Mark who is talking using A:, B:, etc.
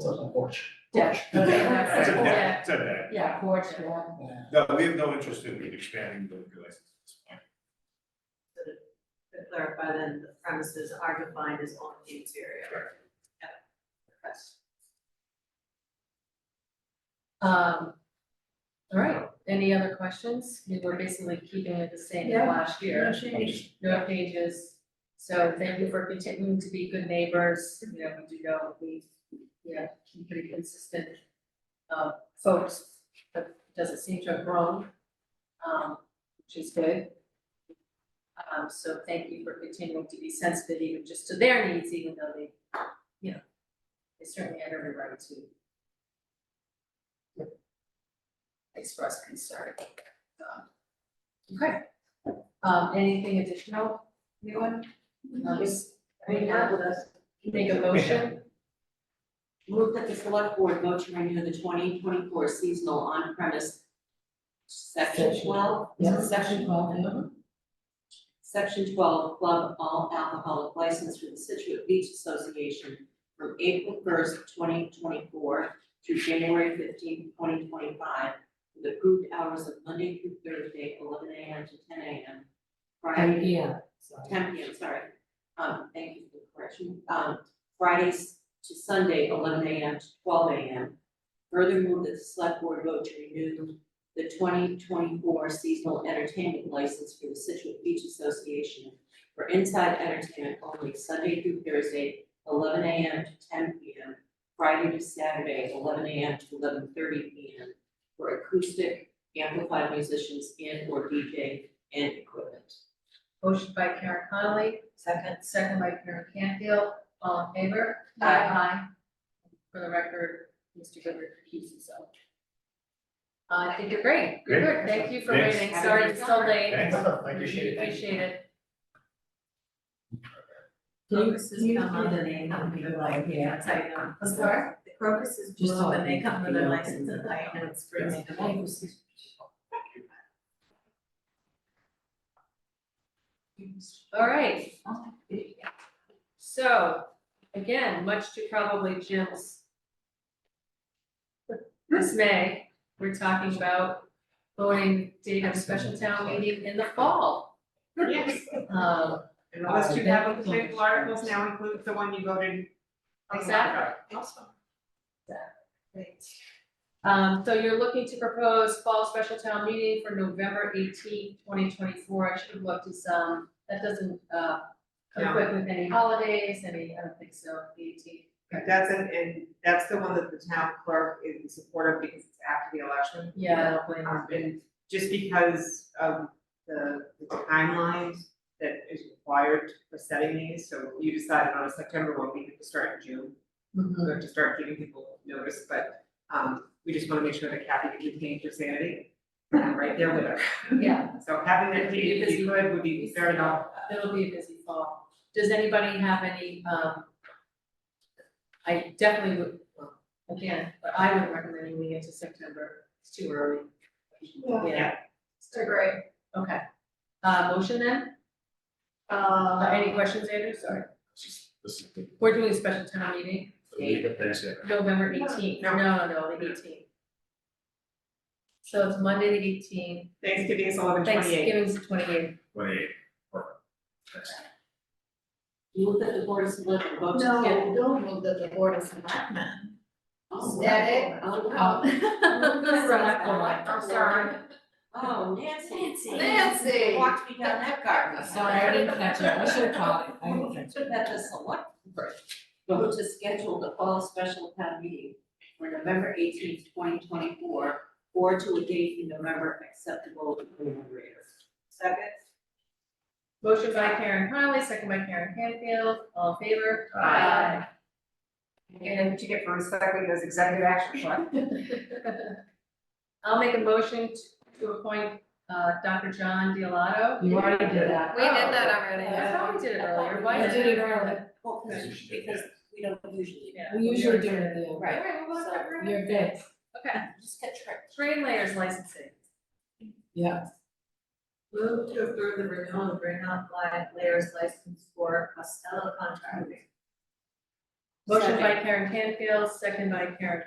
A: a porch.
B: Yeah.
C: It's a
B: Yeah.
C: deck, it's a deck.
B: Yeah, porch, yeah.
C: No, we have no interest in expanding the liquor license at this point.
D: To clarify then, the premises are defined as on the interior.
C: Correct.
D: Yeah. That's-
B: Um, all right, any other questions? We were basically keeping it the same
E: Yeah.
B: as last year. No changes. So thank you for continuing to be good neighbors, you know, we do know we, yeah, keep pretty consistent uh, folks, but doesn't seem to have grown, um, which is good. Um, so thank you for continuing to be sensitive even just to their needs, even though they, you know, they certainly have every right to express concern. Um, Okay, um, anything additional, anyone? Um, just-
E: I mean, not with us.
B: Make a motion,
F: Move that the select board vote to renew the twenty twenty-four seasonal on-premise section
E: Section.
F: twelve,
E: Yeah.
F: section, section twelve, club all alcoholic license for the Situate Beach Association from April first, twenty twenty-four through January fifteenth, twenty twenty-five, with approved hours of Monday through Thursday, eleven AM to ten AM. Friday,
E: Yeah, so.
F: ten P M, sorry. Um, thank you for the correction. Um, Fridays to Sunday, eleven A M to twelve A M. Further move that the select board vote to renew the twenty twenty-four seasonal entertainment license for the Situate Beach Association for inside entertainment only Sunday through Thursday, eleven A M to ten P M. Friday to Saturday, eleven A M to eleven thirty P M for acoustic amplified musicians and or DJ and equipment.
B: motion by Karen Connolly, second, second by Karen Canfield, all in favor?
F: Aye.
B: Aye. For the record, Mr. Goodrich recused himself. Uh, I think you're great, You're
C: Great.
B: good, thank you for
C: Thanks.
B: waiting, sorry it's so late.
C: Thanks.
A: I
B: We
A: appreciate it.
B: Appreciate it.
D: Crocus is
E: you
D: come
E: do
D: up
E: the
D: and they
E: name
D: come
E: of
D: with
E: the
D: a
E: light,
D: license,
E: yeah.
D: that's how you know.
E: I'm sorry?
D: The crocuses
E: Just
D: bloom and they
E: all
D: come with a
E: the-
D: license, and I know it's crazy.
B: All right, so, again, much to probably Jim's dismay, we're talking about voting date of special town meeting in the fall.
G: Yes,
B: Um,
G: and the last two applicable articles now include the one you voted. on the
B: Exactly.
G: warrant article. Awesome.
B: um, so you're looking to propose fall special town meeting for November 18, twenty twenty-four, I should have looked at some, that doesn't, uh,
G: No.
B: conflict with any holidays, any, I don't think so, eighteen.
G: It doesn't, and that's the one that the town clerk is in support of because it's after the election.
B: Yeah, I don't blame her.
G: Um, and just because of the the timelines that is required for setting these, so you decided on a September one, we have to start in June. We have to start giving people notice, but, um, we just wanna make sure that Kathy can maintain her sanity. And I'm right there with her.
B: Yeah,
G: So having that date, if you could, would be very helpful.
B: it'll be a busy fall. Does anybody have any, um, I definitely would, well, again, but I would recommend moving it to September, it's too early. Yeah,
E: They're great.
B: okay. Uh, motion then? Uh, any questions, Andrew? Sorry.
C: This is the-
B: We're doing a special town meeting,
C: the lead up there.
B: November eighteenth, no,
G: No.
B: no, no, the eighteenth. So it's Monday the eighteenth,
G: Thanksgiving is eleven twenty-eight.
B: Thanksgiving's the twenty-eighth.
C: Twenty-eight. Perfect. Thanks.
F: Move that the board of selectmen vote to
E: No,
F: schedule.
E: don't move that the board of selectmen.
F: Oh,
E: That it?
F: Oh, wow.
B: Oh. I'm sorry.
F: Oh, Nancy. Nancy.
E: Nancy.
F: Walked me down that garden, sorry, I didn't catch it, I should have caught it. Move that the select board vote to schedule the fall special town meeting for November eighteenth, twenty twenty-four, or to a date in November acceptable to the moderator.
D: Second,
B: Motion by Karen Conley, second by Karen Canfield, all in favor?
G: Aye. And what you get for recycling those executive action plan.
B: I'll make a motion t- to appoint uh Dr. John Dialato.
E: You already did that.
D: We did that
B: I
D: already.
B: thought we did it earlier, why
E: We
B: did
E: did it earlier.
F: Well, because,
C: Yeah, you should do
F: because we don't usually.
B: Yeah.
E: We usually do it, yeah.
F: Right,
B: Alright, well,
F: So,
B: whatever.
E: You're good.
B: Okay,
F: just get tricked.
B: trade layers licensing,
E: Yeah.
D: move to approve the renewal of Green Light Layers license for Costello Contracting.
B: Motion by Karen Canfield, second by Karen